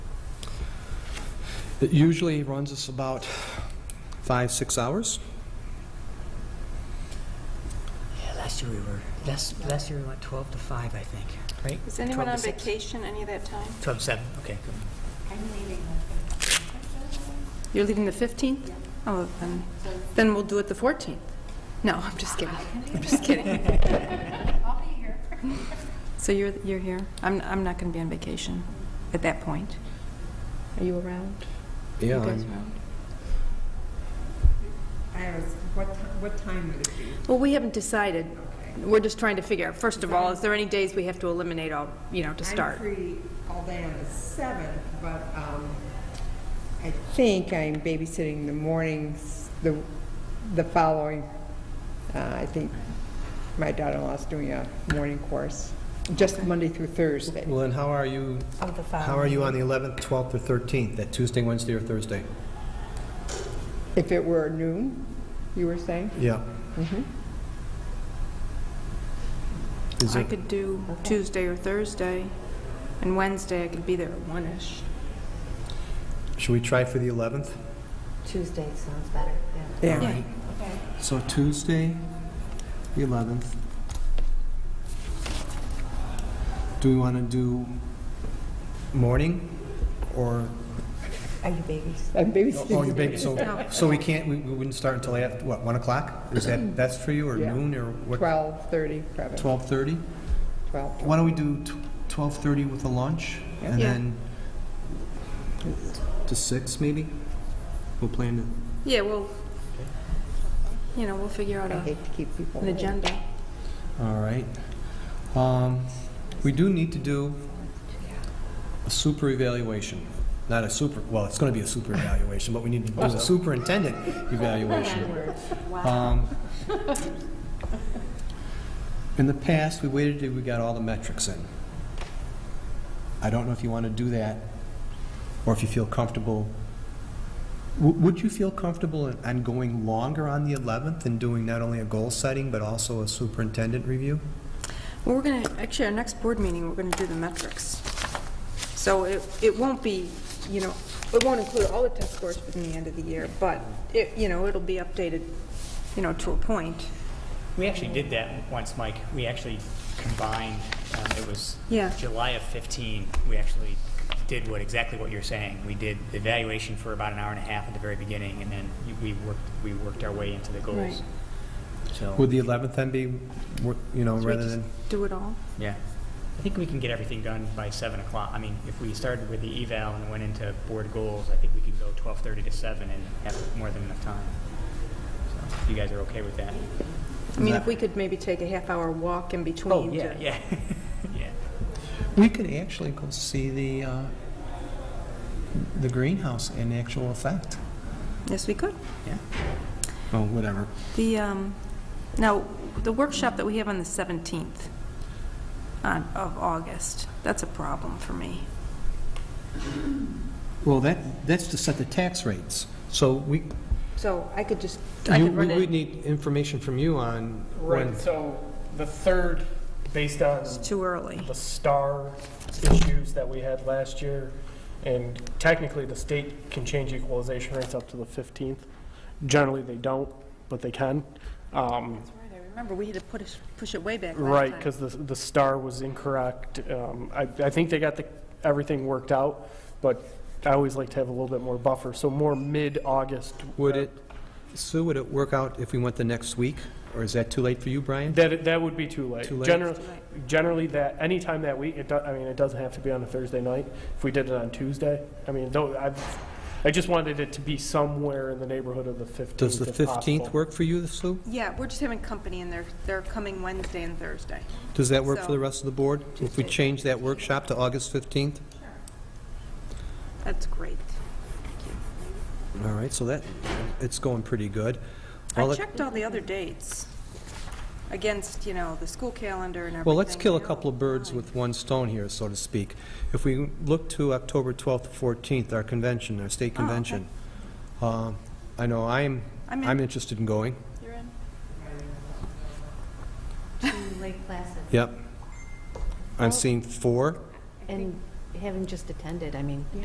It usually runs us about five, six hours. Yeah, last year we were, last, last year we went 12 to 5, I think, right? Is anyone 12 on to six. vacation any of that time? 12 to 7, okay. good. You're leaving the 15th? Oh, then, then we'll do it the 14th. No, I'm just kidding. I'm just kidding. I'll be here. So you're, you're here? I'm, I'm not going to be on vacation at that point. Are you around? You Yeah, guys I'm- around? Iris, what, ti- what time would it be? Well, we haven't decided. We're just trying to figure out, first of all, is there any days we have to eliminate all, you know, to I'm start? free all day on the seventh, but, um, I think I'm babysitting the mornings, the, the following, uh, I think my daughter-in-law's doing a morning course, just Monday through Thursday. well, then how are you, Of the How are you on the 11th, 12th, or 13th, that Tuesday, Wednesday, or Thursday? If it were noon, you were saying? Yeah. Mm-hmm. Is I it, could do Tuesday or Thursday, and Wednesday I could be there at one-ish. should we try for the 11th? Tuesday sounds better, yeah. All right. So Tuesday, the 11th. Do we want to do morning or, Are you babies? I'm oh, you babysitting. big, so, so we can't, we we wouldn't start until after, what, 1 o'clock? Is Mm-hmm. that, that's for you, or Yeah. noon, or what? Twelve-thirty, probably, 12:30? twelve. Why don't we do tw- 12:30 with a lunch, and Yeah. then To 6, maybe? We'll plan it. Yeah, well, you know, we'll figure out I a- hate to keep people. an agenda. All right. Um, We do need to do a super evaluation, not a super, well, it's going to be a super evaluation, but we need to do a superintendent evaluation. Um, In the past, we waited till we got all the metrics in. I don't know if you want to do that, or if you feel comfortable. W- Would you feel comfortable in- on going longer on the 11th and doing not only a goal setting, but also a superintendent review? Well, we're going to, actually, our next board meeting, we're going to do the metrics. So it, it won't be, you know, it won't include all the test scores within the end of the year, but it, you know, it'll be updated, you know, to a point. We actually did that once, Mike. We actually combined, um, it was Yeah. July of 15, we actually did what, exactly what you're saying. We did the evaluation for about an hour and a half at the very beginning, and then you- we worked, we worked our way into the Right. goals. So, Would the 11th then be, wor- you know, So we rather just than, Do it all? yeah. I think we can get everything done by 7 o'clock. I mean, if we started with the eval and went into board goals, I think we could go 12:30 to 7 and have more than enough time. So, If you guys are okay with that? I mean, if we could maybe take a half-hour walk in between. Oh, to- yeah, yeah, yeah. we could actually go see the, uh, the greenhouse in actual effect, Yes, we could. Oh, whatever. The, um, now, the workshop that we have on the 17th on- of August, that's a problem for me. Well, that, that's to set the tax rates. So we, So I could just, I you- could we run would it need information from you on when, Right, so the third, based on too early. the star issues that we had last year, and technically the state can change equalization rates up to the 15th. Generally, they don't, but they can. Um, Remember, we had to put it, push it way back last Right, time. because the, the star was incorrect. Um, I, I think they got the, everything worked out, but I always like to have a little bit more buffer, so more mid-August. would uh, it, Sue, would it work out if we went the next week? Or is that too late for you, Brian? That, that would be too late. Too late? Generally, generally that, any time that week, it, do- I mean, it doesn't have to be on a Thursday night. If we did it on Tuesday, I mean, though, I, I just wanted it to be somewhere in the neighborhood of the 15th Does the if possible. 15th work for you, Sue? Yeah, we're just having company and they're, they're coming Wednesday and Thursday. Does that work for So- the rest of the board? If we change that workshop to August 15th? That's great. All right, so that, it's going pretty good. Well, I let- checked all the other dates against, you know, the school calendar and everything. Well, let's kill a They're couple all of birds fine. with one stone here, so to speak. If we look to October 12th to 14th, our convention, our state Oh, okay. convention, um, I know I'm, I'm in. I'm interested in going. You're in? Two Lake Placid. Yep. I'm seeing four. And having just attended, I mean,